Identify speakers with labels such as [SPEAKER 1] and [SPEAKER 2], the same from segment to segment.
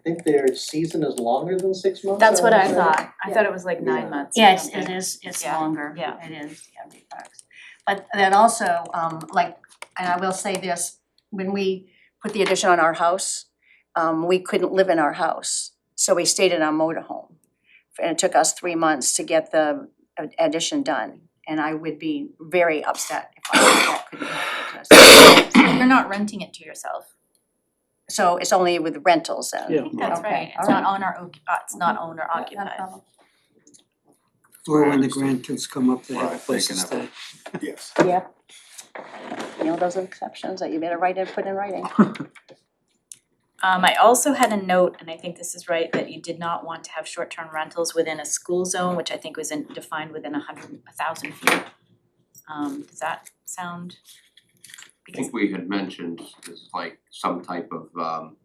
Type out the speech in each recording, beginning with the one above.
[SPEAKER 1] I think their season is longer than six months.
[SPEAKER 2] That's what
[SPEAKER 1] would
[SPEAKER 2] I
[SPEAKER 1] say.
[SPEAKER 2] thought, I
[SPEAKER 3] Yeah.
[SPEAKER 2] thought it was like
[SPEAKER 1] Yeah.
[SPEAKER 2] nine months or
[SPEAKER 4] Yes,
[SPEAKER 2] something.
[SPEAKER 4] it is, it's
[SPEAKER 2] Yeah,
[SPEAKER 4] longer,
[SPEAKER 2] yeah.
[SPEAKER 4] it is, yeah, big bucks. But then also, um, like, and I will say this, when we put the addition on our house, um, we couldn't live in our house, so we stayed in our motorhome. And it took us three months to get the ad- addition done, and I would be very upset if I that couldn't happen to us.
[SPEAKER 2] So You're not renting it to yourself,
[SPEAKER 4] So it's only with rentals then?
[SPEAKER 2] I think that's
[SPEAKER 4] Okay,
[SPEAKER 2] right, it's
[SPEAKER 4] all
[SPEAKER 2] not
[SPEAKER 4] right.
[SPEAKER 2] on our, oc- uh, it's not owner
[SPEAKER 4] Yeah, not a
[SPEAKER 2] occupied.
[SPEAKER 4] problem.
[SPEAKER 5] Or when the grandkids come up, they
[SPEAKER 6] Right,
[SPEAKER 5] have
[SPEAKER 6] they
[SPEAKER 5] places
[SPEAKER 6] can
[SPEAKER 5] to
[SPEAKER 6] have
[SPEAKER 5] stay.
[SPEAKER 6] Yes.
[SPEAKER 4] You know, those are exceptions that you better write and put in writing.
[SPEAKER 2] Um, I also had a note, and I think this is right, that you did not want to have short-term rentals within a school zone, which I think was in, defined within a hundred, a thousand feet. Um, does that sound?
[SPEAKER 7] I think we had mentioned is like some type of um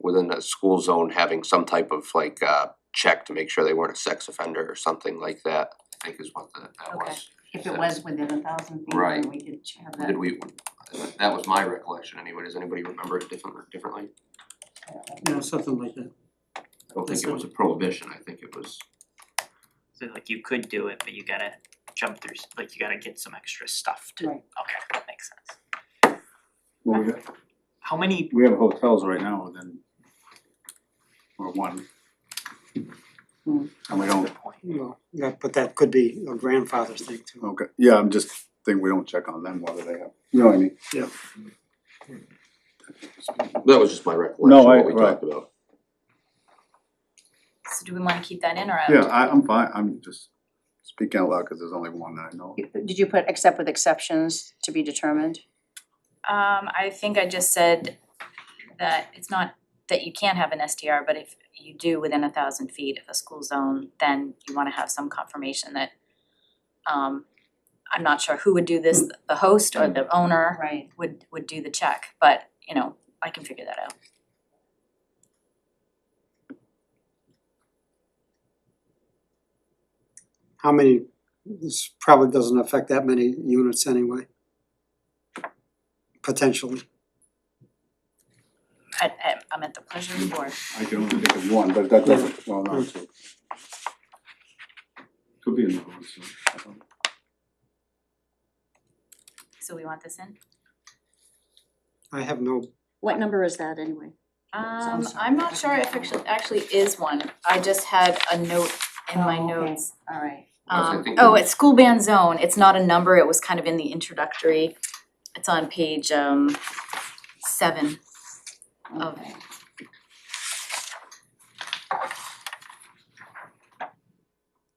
[SPEAKER 7] within that school zone having some type of like uh check to make sure they weren't a sex offender or something like that, I think is what that that
[SPEAKER 2] Okay.
[SPEAKER 7] was.
[SPEAKER 4] If it was within a thousand feet,
[SPEAKER 7] Right.
[SPEAKER 4] then we could have that.
[SPEAKER 7] Did we, that was my recollection anyway, does anybody remember it different differently?
[SPEAKER 5] Yeah, something like that.
[SPEAKER 7] I don't think it was a prohibition, I think it was,
[SPEAKER 8] So like you could do it, but you gotta jump through, s- like you gotta get some extra stuff to,
[SPEAKER 4] Right.
[SPEAKER 8] okay, that makes sense.
[SPEAKER 6] Well, we have,
[SPEAKER 8] How many,
[SPEAKER 6] we have hotels right now within, or one.
[SPEAKER 4] Hmm.
[SPEAKER 6] And we don't,
[SPEAKER 5] Well, that, but that could be a grandfather's thing too.
[SPEAKER 6] okay, yeah, I'm just thinking we don't check on them whether they have, you know what I mean?
[SPEAKER 7] that was just my recollection,
[SPEAKER 6] I-
[SPEAKER 7] what we
[SPEAKER 6] right.
[SPEAKER 7] talked about.
[SPEAKER 2] So do we wanna keep that in or out?
[SPEAKER 6] Yeah, I I'm fine, I'm just speaking out loud, cause there's only one that I know.
[SPEAKER 4] You- Did you put except with exceptions to be determined?
[SPEAKER 2] Um, I think I just said that it's not that you can't have an STR, but if you do within a thousand feet of a school zone, then you wanna have some confirmation that um, I'm not sure who would do this, the host or the owner
[SPEAKER 4] Right.
[SPEAKER 2] would would do the check, but you know, I can figure that out.
[SPEAKER 5] How many, this probably doesn't affect that many units anyway. Potentially.
[SPEAKER 2] I I I'm at the pleasure of the board.
[SPEAKER 6] I can only think of one, but that doesn't, well, no, two. Could be another one, so. I don't-
[SPEAKER 2] So we want this in?
[SPEAKER 5] I have no,
[SPEAKER 3] What number is that anyway?
[SPEAKER 2] Um, I'm not sure if actually actually is one. I just had a note in my
[SPEAKER 4] Oh, okay.
[SPEAKER 2] notes.
[SPEAKER 4] Alright.
[SPEAKER 7] Yes, I
[SPEAKER 2] Um,
[SPEAKER 7] think
[SPEAKER 2] oh,
[SPEAKER 7] we-
[SPEAKER 2] it's school band zone, it's not a number, it was kind of in the introductory, it's on page um seven of.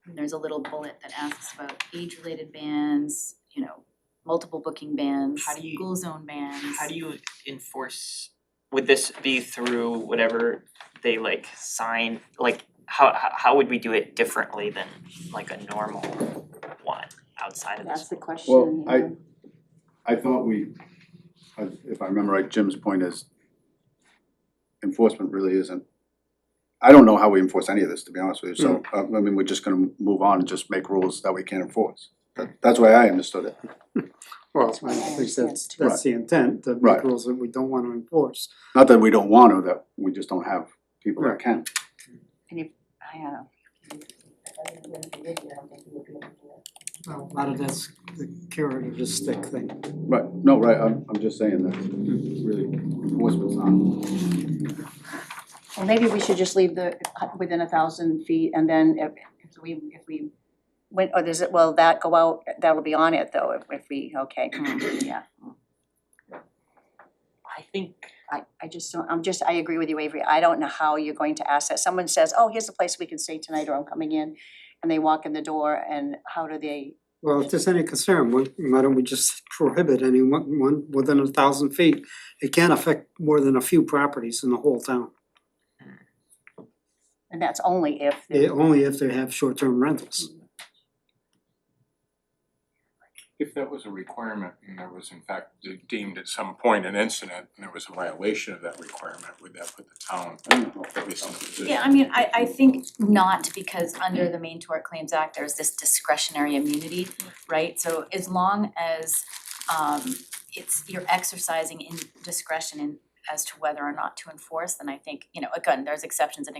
[SPEAKER 2] And There's a little bullet that asks about age-related bands, you know, multiple booking bands,
[SPEAKER 8] How do you-
[SPEAKER 2] school zone bands.
[SPEAKER 8] how do you enforce, would this be through whatever they like sign, like how how how would we do it differently than like a normal one outside of
[SPEAKER 3] That's
[SPEAKER 8] this?
[SPEAKER 3] the question.
[SPEAKER 6] Well, I-
[SPEAKER 3] yeah.
[SPEAKER 6] I thought we, I- if I remember right, Jim's point is enforcement really isn't, I don't know how we enforce any of this, to be honest with you, so, uh, I mean, we're just gonna move on and just make rules that we can't enforce. That- That's why I understood it.
[SPEAKER 5] well,
[SPEAKER 4] what
[SPEAKER 5] I
[SPEAKER 4] I
[SPEAKER 5] think
[SPEAKER 4] understand
[SPEAKER 5] that's,
[SPEAKER 4] too.
[SPEAKER 5] that's the intent, the
[SPEAKER 6] Right.
[SPEAKER 5] rules that we don't wanna enforce.
[SPEAKER 6] Not that we don't want to, that we just don't have people that
[SPEAKER 5] Right.
[SPEAKER 6] can.
[SPEAKER 4] I uh, don't know.
[SPEAKER 5] Well, A lot of that's the carrot or the stick thing.
[SPEAKER 6] Right, no, right, I'm, I'm just saying that really enforcement's not,
[SPEAKER 4] Well, maybe we should just leave the uh, within a thousand feet and then if if we if we went, or does it, will that go out, that'll be on it though, if if we, okay, mm, yeah.
[SPEAKER 8] I think
[SPEAKER 4] I I just don't, I'm just, I agree with you Avery, I don't know how you're going to ask that. Someone says, oh, here's a place we can stay tonight or I'm coming in and they walk in the door and how do they
[SPEAKER 5] Well, if there's any concern, why why don't we just prohibit any one, one within a thousand feet? It can affect more than a few properties in the whole town,
[SPEAKER 4] And that's only if
[SPEAKER 5] eh, only if they have short-term rentals.
[SPEAKER 9] If that was a requirement and there was in fact de- deemed at some point an incident and there was a violation of that requirement, would that put the town
[SPEAKER 6] I don't know.
[SPEAKER 9] at least in a position?
[SPEAKER 2] Yeah, I mean, I I think not because under the Maine Tort Claims Act, there's this discretionary immunity, right? So as long as um it's you're exercising in discretion in as to whether or not to enforce, then I think, you know, again, there's exceptions and